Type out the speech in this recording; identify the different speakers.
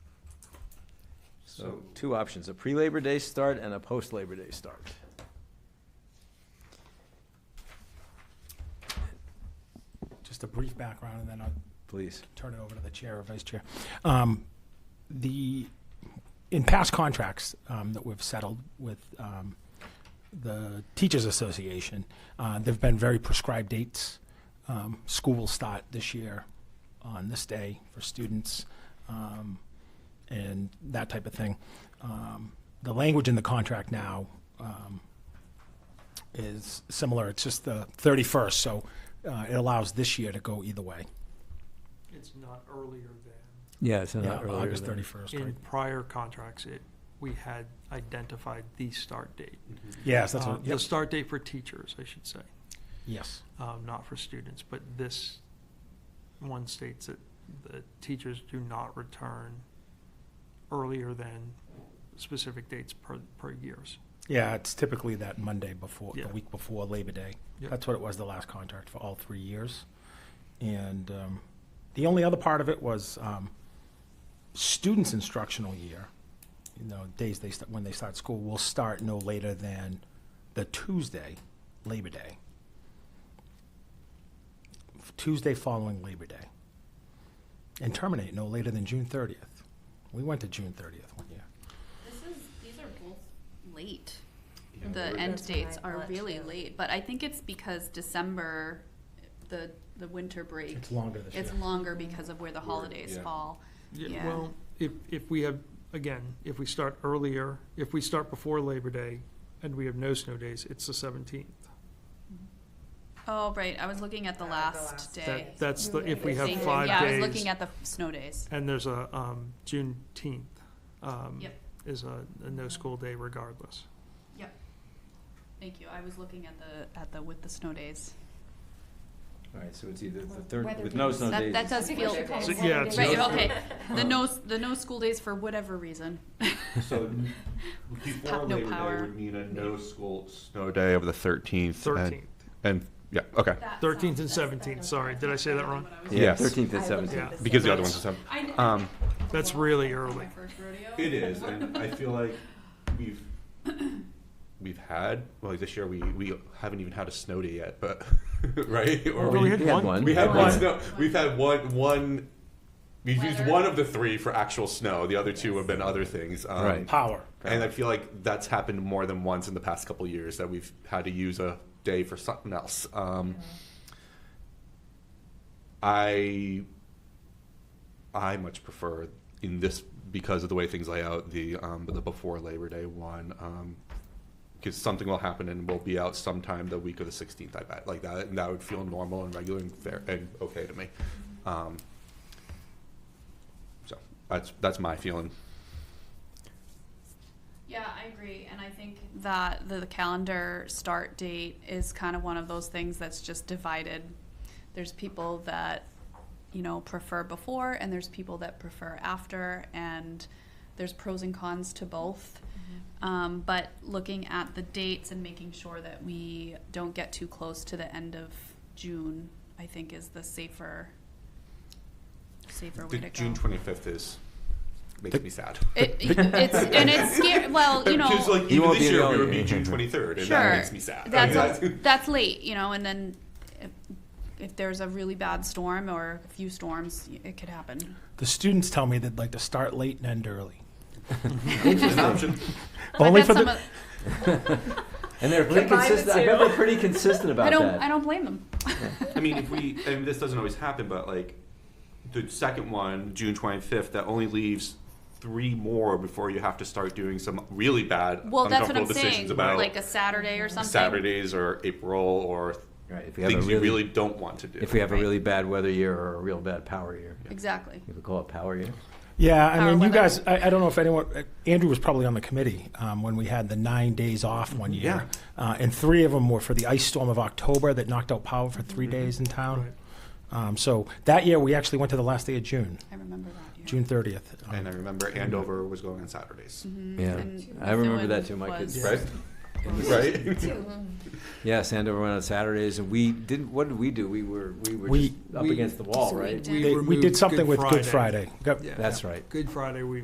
Speaker 1: So two options, a pre-Labor Day start and a post-Labor Day start.
Speaker 2: Just a brief background, and then I'll
Speaker 1: Please.
Speaker 2: turn it over to the chair or vice chair. Um, The, in past contracts um, that we've settled with um, the Teachers Association, uh, there've been very prescribed dates. Um, School will start this year on this day for students um, and that type of thing. Um, The language in the contract now um, is similar. It's just the 31st, so uh, it allows this year to go either way.
Speaker 3: It's not earlier than,
Speaker 1: Yeah, it's
Speaker 2: Yeah, August 31st.
Speaker 3: in
Speaker 2: right.
Speaker 3: prior contracts, it, we had identified the start date.
Speaker 2: Yes, that's
Speaker 3: Uh,
Speaker 2: what,
Speaker 3: The
Speaker 2: yep,
Speaker 3: start date for teachers, I should say,
Speaker 2: yes.
Speaker 3: um, not for students, but this one states that the teachers do not return earlier than specific dates per, per years.
Speaker 2: Yeah, it's typically that Monday before, the
Speaker 3: Yeah.
Speaker 2: week before Labor Day.
Speaker 3: Yep.
Speaker 2: That's what it was the last contract for all three years. And um, the only other part of it was um, students' instructional year, you know, days they, st- when they start school, will start no later than the Tuesday, Labor Day. Tuesday following Labor Day. And terminate no later than June 30th. We went to June 30th one year.
Speaker 4: This is, these are both late.
Speaker 5: Yeah,
Speaker 4: The
Speaker 5: we're-
Speaker 4: end
Speaker 6: That's what I
Speaker 4: dates are
Speaker 6: thought,
Speaker 4: really
Speaker 6: too.
Speaker 4: late, but I think it's because December, the, the winter break,
Speaker 2: It's longer this year.
Speaker 4: it's longer because of where the holidays
Speaker 5: yeah.
Speaker 4: fall. Yeah.
Speaker 3: Well, if, if we have, again, if we start earlier, if we start before Labor Day and we have no snow days, it's the seventeenth.
Speaker 4: Oh, right, I was looking at the
Speaker 6: Uh, the
Speaker 4: last
Speaker 6: last
Speaker 4: day.
Speaker 6: day.
Speaker 3: That, that's the, if we have
Speaker 4: Thank you.
Speaker 3: five days.
Speaker 4: Yeah, I was looking at the f- snow days.
Speaker 3: And there's a, um, Juneteenth, um,
Speaker 4: Yep.
Speaker 3: is a, a no school day regardless.
Speaker 4: Thank you, I was looking at the, at the, with the snow days.
Speaker 1: All right, so it's either the
Speaker 6: Well,
Speaker 1: third,
Speaker 6: weather
Speaker 1: with no
Speaker 6: days.
Speaker 1: snow
Speaker 4: That,
Speaker 1: days.
Speaker 4: that does
Speaker 6: I think we
Speaker 4: feel,
Speaker 6: should call
Speaker 3: So-
Speaker 6: it
Speaker 3: yeah,
Speaker 6: Saturday.
Speaker 3: it's
Speaker 4: right,
Speaker 3: no-
Speaker 4: okay,
Speaker 3: Uh,
Speaker 4: the no, s- the no school days for whatever reason.
Speaker 5: So n-
Speaker 4: Pop-
Speaker 5: before
Speaker 4: no
Speaker 5: Labor Day
Speaker 4: power.
Speaker 5: would mean a no school snow day of the thirteenth.
Speaker 3: Thirteenth,
Speaker 5: And, yeah, okay.
Speaker 3: thirteenth and seventeenth, sorry, did I say that wrong?
Speaker 1: Yeah,
Speaker 5: Yes.
Speaker 1: thirteenth and
Speaker 6: I looked
Speaker 1: seventeenth.
Speaker 6: at this
Speaker 5: Because the
Speaker 6: stuff.
Speaker 5: other ones are seven.
Speaker 4: I kn-
Speaker 5: Um,
Speaker 3: That's really
Speaker 4: That's my
Speaker 3: early.
Speaker 4: first rodeo.
Speaker 5: it is, and I feel like we've, we've had, well, this year we, we haven't even had a snow day yet, but, right? Or
Speaker 3: Well, we had one-
Speaker 5: We had one
Speaker 1: Yeah.
Speaker 5: snow, we've had one, one, we've used
Speaker 4: Weather.
Speaker 5: one of the three for actual snow, the other two have been other things. Um,
Speaker 1: Right.
Speaker 2: Power.
Speaker 5: And I feel like that's happened more than once in the past couple years that we've had to use a day for something else. Um, I I much prefer in this because of the way things lay out the um, the before Labor Day one um, because something will happen and we'll be out sometime the week of the 16th. I bet like that and that would feel normal and regular and fair and okay to me. Um, so that's that's my feeling.
Speaker 4: Yeah, I agree, and I think that the calendar start date is kind of one of those things that's just divided. There's people that, you know, prefer before, and there's people that prefer after, and there's pros and cons to both. Um, but looking at the dates and making sure that we don't get too close to the end of June, I think is the safer, safer way
Speaker 5: The
Speaker 4: to go.
Speaker 5: June twenty fifth is makes me sad.
Speaker 4: It, it's, and it's scary, well, you know.
Speaker 5: Because like
Speaker 1: You
Speaker 5: even
Speaker 1: won't
Speaker 5: this
Speaker 1: be
Speaker 5: year
Speaker 1: the
Speaker 5: we
Speaker 1: only-
Speaker 5: would be June twenty third, and
Speaker 4: Sure.
Speaker 5: that makes me sad.
Speaker 4: That's, that's late, you know, and then if, if there's a really bad storm or a few storms, y- it could happen.
Speaker 2: The students tell me they'd like to start late and end early.
Speaker 5: an option.
Speaker 4: But
Speaker 2: Only
Speaker 4: that's
Speaker 2: for the-
Speaker 4: some of-
Speaker 1: And they're pretty
Speaker 6: Combine the
Speaker 1: consistent, I bet
Speaker 6: two.
Speaker 1: they're pretty consistent
Speaker 4: I
Speaker 1: about
Speaker 4: don't, I
Speaker 1: that.
Speaker 4: don't blame them.
Speaker 5: I mean, if we and this doesn't always happen, but like the second one, June twenty fifth, that only leaves three more before you have to start doing some really bad,
Speaker 4: Well, that's what
Speaker 5: uncomfortable
Speaker 4: I'm saying,
Speaker 5: decisions about
Speaker 4: like a Saturday or something.
Speaker 5: Saturdays or April or
Speaker 1: Right, if we have a
Speaker 5: things you really
Speaker 1: really,
Speaker 5: don't want to do.
Speaker 1: if we have a
Speaker 4: Right.
Speaker 1: really bad weather year or a real bad power year,
Speaker 4: Exactly.
Speaker 1: you could call it power year.
Speaker 2: Yeah, I
Speaker 4: Power
Speaker 2: mean, you
Speaker 4: weather.
Speaker 2: guys, I, I don't know if anyone, uh, Andrew was probably on the committee um, when we had the nine days off one
Speaker 3: Mm-hmm.
Speaker 2: year. Uh, and three of them were for the ice storm of October that knocked out power for three days in town.
Speaker 3: Mm-hmm. Right.
Speaker 2: Um, so that year, we actually went to the last day of June,
Speaker 4: I remember that, yeah.
Speaker 2: June 30th. Um,
Speaker 5: and I remember Andover was going on Saturdays,
Speaker 4: Mm-hmm.
Speaker 1: Yeah,
Speaker 4: Mm, And
Speaker 1: I remember
Speaker 4: Methuen
Speaker 1: that too, my
Speaker 4: was-
Speaker 1: kids.
Speaker 5: right? right.
Speaker 1: Yeah, Sandover went on Saturdays, and we didn't, what did we do? We were, we were
Speaker 2: We-
Speaker 1: just up
Speaker 7: we-
Speaker 1: against the wall,
Speaker 7: So we
Speaker 1: right?
Speaker 7: did-
Speaker 2: They- We
Speaker 3: removed
Speaker 2: did something with
Speaker 3: Good
Speaker 2: Good
Speaker 3: Friday.
Speaker 2: Friday. Got-
Speaker 1: That's right.
Speaker 3: Good Friday, we